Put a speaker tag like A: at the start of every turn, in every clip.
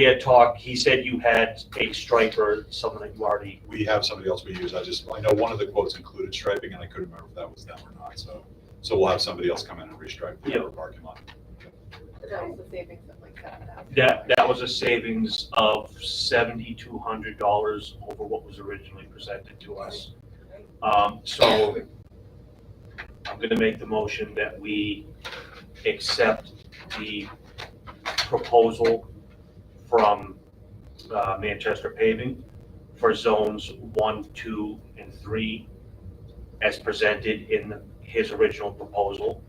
A: We had talked, he said you had a striper, someone that you already,
B: We have somebody else we use. I just, I know one of the quotes included striping and I couldn't remember if that was them or not, so. So we'll have somebody else come in and restripe the
A: Yeah.
B: parking lot.
C: But that was the savings of like seven thousand.
A: that, that was a savings of seventy-two hundred dollars over what was originally presented to us. Um, so I'm gonna make the motion that we accept the proposal from, uh, Manchester Paving for zones one, two, and three as presented in his original proposal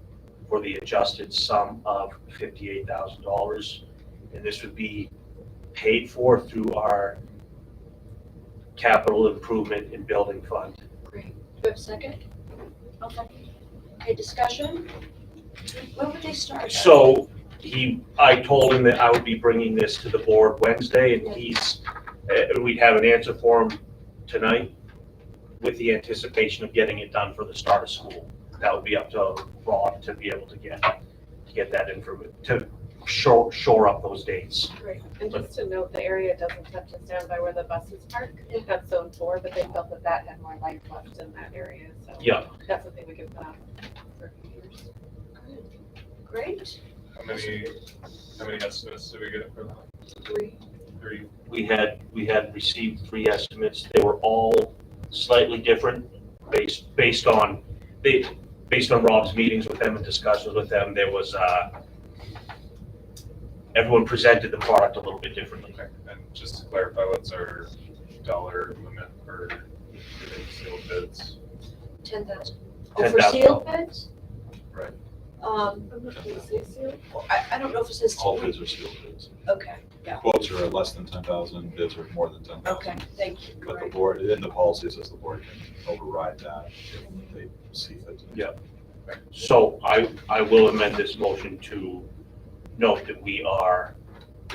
A: for the adjusted sum of fifty-eight thousand dollars. And this would be paid for through our capital improvement and building fund.
D: Great. Do we have a second? Okay. Okay, discussion? When would they start?
A: So he, I told him that I would be bringing this to the board Wednesday and he's, uh, we'd have an answer for him tonight with the anticipation of getting it done for the start of school. That would be up to Rob to be able to get, to get that information, to shore, shore up those dates.
C: Great. And just to note, the area doesn't touch us down by where the buses park. That's zone four, but they felt that that had more life left in that area, so.
A: Yeah.
C: That's something we could put on for years.
D: Great.
E: How many, how many estimates did we get for that?
D: Three.
E: Three?
A: we had, we had received three estimates. They were all slightly different based, based on, they, based on Rob's meetings with them and discussions with them, there was, uh, everyone presented the product a little bit differently.
E: Okay, And just to clarify, what's our dollar limit for sealed bids?
D: Ten thousand. Oh, for
A: $10,000.
D: sealed beds?
E: Right.
D: Um, well, I, I don't know if it says.
B: All bids are sealed bids.
D: Okay, yeah,
B: Quotes are less than ten thousand, bids are more than ten
D: okay,
B: thousand.
D: thank you.
B: But the
D: Great.
B: board, in the policy says the board can override that if they see fit.
A: Yeah. So I, I will amend this motion to note that we are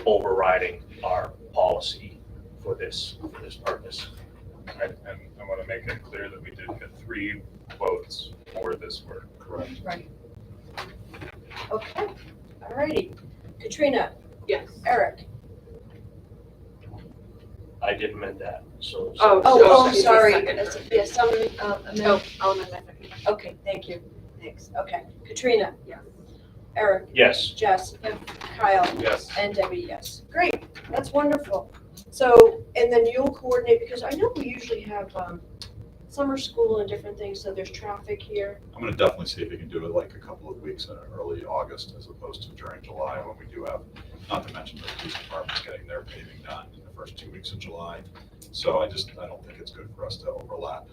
A: overriding our policy for this, for this purpose.
E: I- And I want to make it clear that we did get three quotes for this work.
B: Correct.
D: Right. Okay, alrighty. Katrina,
C: Yes.
D: Eric.
A: I did amend that, so.
C: Oh,
D: Oh, oh, I'm
C: she's the
D: sorry.
C: second.
D: That's- Yes, some, um, amend-
C: No, I'll amend my second.
D: okay, thank you. Thanks, okay. Katrina.
C: Yes.
D: Eric,
A: Yes,
D: Jess, Kyle.
E: Yes.
D: And Debbie, yes. Great, that's wonderful. So, and then you'll coordinate, because I know we usually have um, summer school and different things, so there's traffic here.
B: I'm gonna definitely see if we can do it like a couple of weeks in early August as opposed to during July when we do have, not to mention the police department's getting their paving done in the first two weeks of July. So I just, I don't think it's good for us to overlap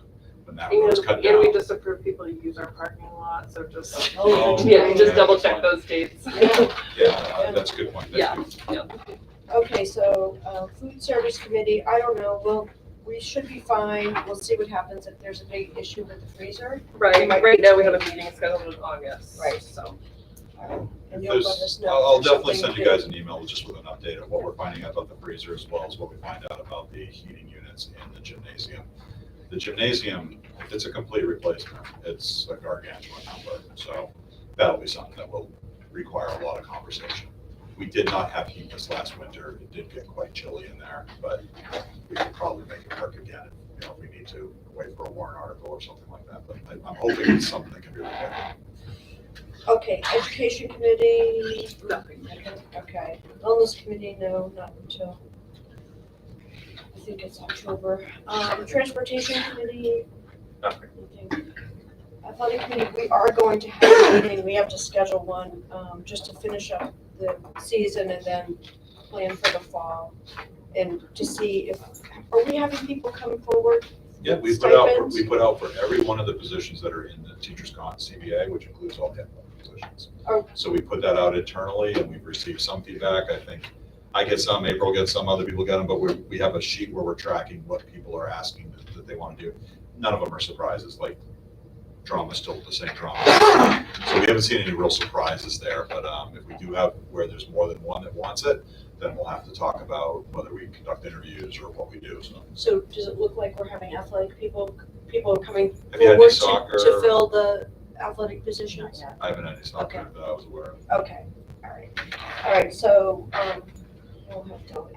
B: when that road's cut
F: And
B: down.
F: we just approve people to use our parking lot, so just,
B: Oh,
F: yeah, just
B: okay.
F: double check those dates.
D: Yeah.
B: Yeah, uh, that's a good point. Thank
F: Yeah.
B: you.
D: Okay, so uh, food service committee, I don't know, well, we should be fine. We'll see what happens if there's a big issue with the freezer.
F: Right, right now we have a meeting scheduled in August,
D: Right.
F: so.
B: If
D: And you'll let
B: there's-
D: us know
B: I'll, I'll
D: if there's
B: definitely
D: something
B: send you
D: new.
B: guys an email with- just with an update of what we're finding out about the freezer as well as what we find out about the heating units and the gymnasium. The gymnasium, it's a complete replacement. It's a gargantuan number, so that'll be something that will require a lot of conversation. We did not have heat this last winter. It did get quite chilly in there, but we could probably make it work again, you know, if we need to, wait for a warrant article or something like that. But I- I'm hoping it's something that can be repaired.
D: Okay, education committee,
F: Nothing.
D: okay. Wellness committee, no, not until, I think it's October. Um, Transportation committee,
E: Nothing.
D: Athletic committee, we are going to have a meeting, we have to schedule one, um, just to finish up the season and then plan for the fall. And to see if, are we having people come forward?
B: Yeah, we put out, for-
D: Stipends?
B: we put out for every one of the positions that are in the teachers' con CBA, which includes all head positions.
D: Oh.
B: So we put that out internally and we've received some feedback. I think I get some, April gets some, other people get them, but we, we have a sheet where we're tracking what people are asking that- that they want to do. None of them are surprises, like drama's still the same drama. So we haven't seen any real surprises there, but um, if we do have where there's more than one that wants it, then we'll have to talk about whether we conduct interviews or what we do, so.
D: So does it look like we're having athletic people, people coming
B: Have you had any
D: forward to,
B: soccer?
D: to fill the athletic positions?
B: I haven't had any soccer
D: Okay.
B: that I was aware of.
D: Okay, all right. All right, so, um, we'll have to.